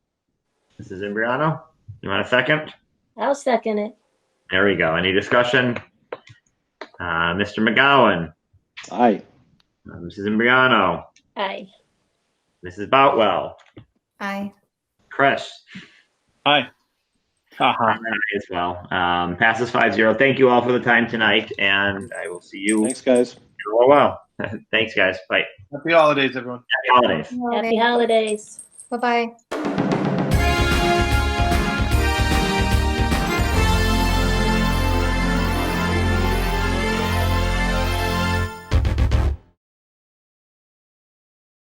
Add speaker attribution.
Speaker 1: Mrs. Imbriano, you want a second?
Speaker 2: I'll second it.
Speaker 1: There we go. Any discussion? Uh, Mr. McGowan,
Speaker 3: Aye.
Speaker 1: uh, Mrs. Imbriano,
Speaker 2: Aye.
Speaker 1: Mrs. Boutwell,
Speaker 4: Aye.
Speaker 1: Chris,
Speaker 5: Haha.
Speaker 1: and I as well. Um, passes five zero. Thank you all for the time tonight, and I will see you.
Speaker 3: Thanks, guys.
Speaker 1: Oh, wow. Thanks, guys. Bye.
Speaker 5: Happy holidays, everyone.
Speaker 1: Happy holidays.
Speaker 2: Happy holidays.
Speaker 4: Bye-bye.